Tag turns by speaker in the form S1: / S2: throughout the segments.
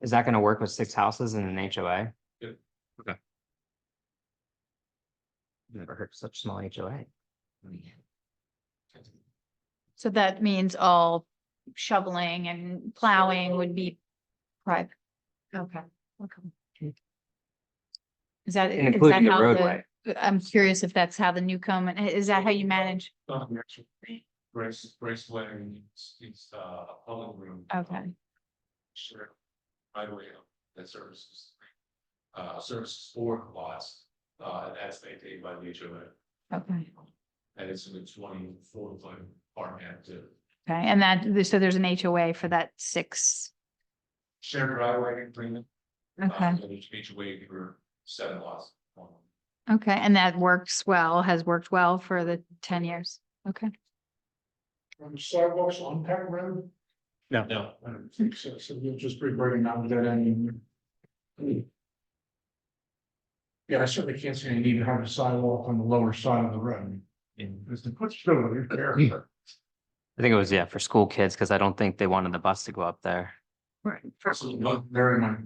S1: Is that gonna work with six houses and an HOA?
S2: Yeah.
S1: Okay. Never heard of such small HOA.
S3: So that means all shoveling and plowing would be private. Okay, okay. Is that?
S1: And
S3: is
S1: including
S3: that
S1: the
S3: how
S1: roadway.
S3: I'm curious if that's how the new Newcomen, is that how you manage?
S2: Grace, Grace Lang, it's, it's uh, a public room.
S3: Okay,
S2: Sure. Right away, um, that services. Uh, services for lots, uh, and that's maintained by the HOA.
S3: okay,
S2: And it's in the twenty-four foot part and to
S3: okay. And that, so there's an HOA for that six.
S2: shared driveway agreement. uh,
S3: Okay,
S2: and it's HOA for seven lots.
S3: okay. And that works well, has worked well for the ten years. Okay.
S4: from sidewalks on Peck Road?
S2: No.
S4: I don't think so, so you'll just be bringing down that any. Yeah, I certainly can't see any need to have a sidewalk on the lower side of the road. Because the foot's still there.
S1: I think it was, yeah, for school kids, because I don't think they wanted the bus to go up there.
S3: Right.
S4: Absolutely not very much.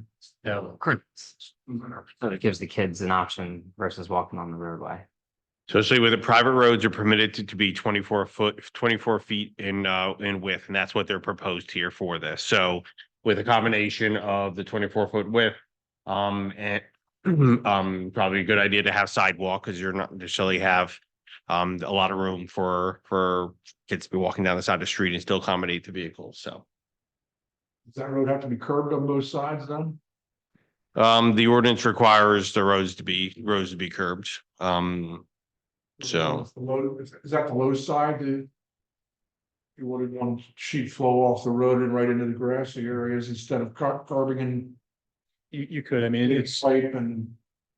S2: No.
S1: So it gives the kids an option versus walking on the roadway.
S5: So essentially where the private roads are permitted to, to be twenty-four foot, twenty-four feet in, uh, in width, and that's what they're proposed here for this. So with a combination of the twenty-four foot width, um, and um, probably a good idea to have sidewalk because you're not necessarily have um, a lot of room for, for kids to be walking down the side of the street and still accommodate the vehicles. So
S4: Does that road have to be curved on both sides then?
S5: um, the ordinance requires the roads to be, roads to be curbed. Um, So-
S4: Is the low- Is is that the low side? the- You wanted one sheet flow off the road and right into the grassy areas instead of car- carving and
S6: You, you could, I mean, it's
S4: pipe and.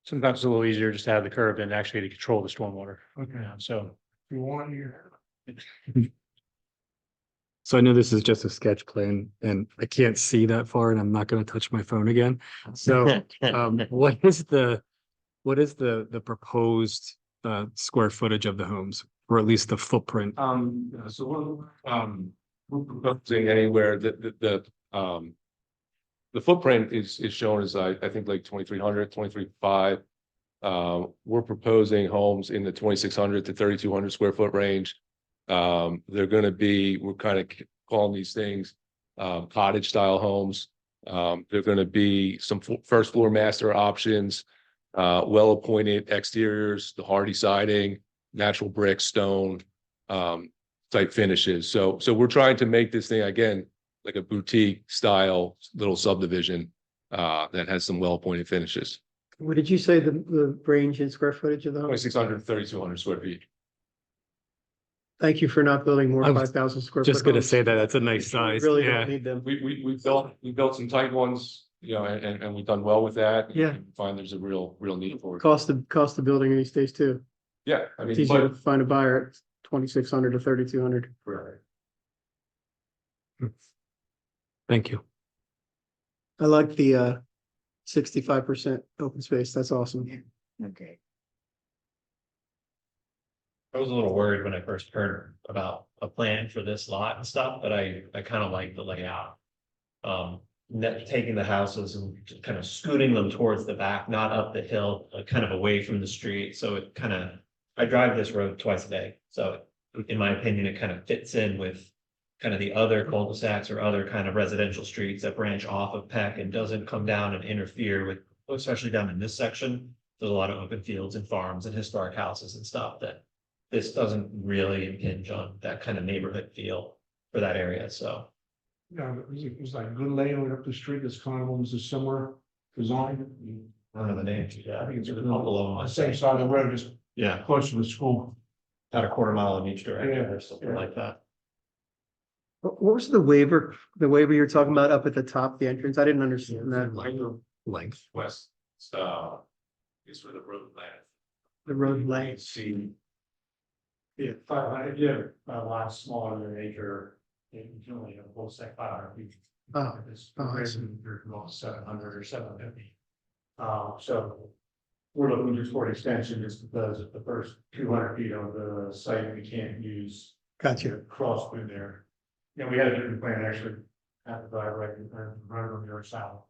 S6: sometimes it's a little easier just to have the curb and actually to control the stormwater, you
S4: Okay.
S6: know, so.
S4: If you want, you
S7: So I know this is just a sketch plan and I can't see that far and I'm not gonna touch my phone again. So um, what is the, what is the, the proposed uh, square footage of the homes? Or at least the footprint?
S8: Uh,
S2: Um, so we're, um, we're proposing anywhere that, that, that, um. The footprint is, is shown as, I, I think like 2,300, 2,305. Uh, we're proposing homes in the twenty-six hundred to thirty-two hundred square foot range. Um, they're gonna be, we're kind of calling these things, um, cottage style homes. Um, they're gonna be some fo- first floor master options, uh, well-appointed exteriors, the hardy siding, natural brick, stone um, type finishes. So, so we're trying to make this thing again, like a boutique style little subdivision, uh, that has some well-appointed finishes.
S8: What did you say the, the range in square footage of the home?
S2: Twenty-six hundred, thirty-two hundred square feet.
S8: Thank you for not building more
S7: I was
S8: five thousand square.
S7: Just
S8: foot
S7: gonna
S8: homes.
S7: say that, that's a nice
S8: We
S7: size,
S8: Really
S7: yeah.
S8: don't need them.
S2: We, we, we built, we built some tight ones, you know, and, and- and we've done well with that.
S8: Yeah.
S2: Find there's a real, real need for it.
S8: Cost of, cost of building these days too.
S2: Yeah, I
S8: It's
S2: mean,
S8: easier
S2: but.
S8: to find a buyer at twenty-six hundred to thirty-two hundred.
S7: Thank you.
S8: I like the, uh, sixty-five percent open space. That's awesome.
S3: Okay.
S9: I was a little worried when I first heard about a plan for this lot and stuff, but I, I kind of like the layout. Um, net, taking the houses and just kind of scooting them towards the back, not up the hill, uh, kind of away from the street, so it kind of. I drive this road twice a day, so in my opinion, it kind of fits in with. Kind of the other cul-de-sacs or other kind of residential streets that branch off of Peck and doesn't come down and interfere with, especially down in this section. There's a lot of open fields and farms and historic houses and stuff that this doesn't really impinge on that kind of neighborhood feel for that area, so.
S4: Yeah, but it was, it was like good layout up the street, this kind of owns a similar design.
S9: I don't know the names, yeah, I think it's a couple of them,
S4: On
S9: I
S4: the same
S9: think,
S4: side of the road, just
S9: yeah,
S4: close to the school.
S9: about a quarter mile in each direction
S4: Yeah,
S9: or something
S4: yeah.
S9: like that.
S8: What what was the waiver, the waiver you were talking about up at the top, the entrance? I didn't understand that.
S7: Length.
S2: West, uh, is where the road land.
S8: The road length.
S2: See.
S4: Yeah, five hundred, yeah, a lot smaller than an acre, you can only have a whole sec five hundred feet.
S8: Oh,
S4: It's
S8: oh, I see.
S4: you're about seven hundred or seven fifty. Uh, so. We're looking just for an extension just because the first two hundred feet of the site we can't use
S8: Got
S4: to
S8: you.
S4: cross through there. Yeah, we had a different plan actually, at the driveway, and run uh, on the other side,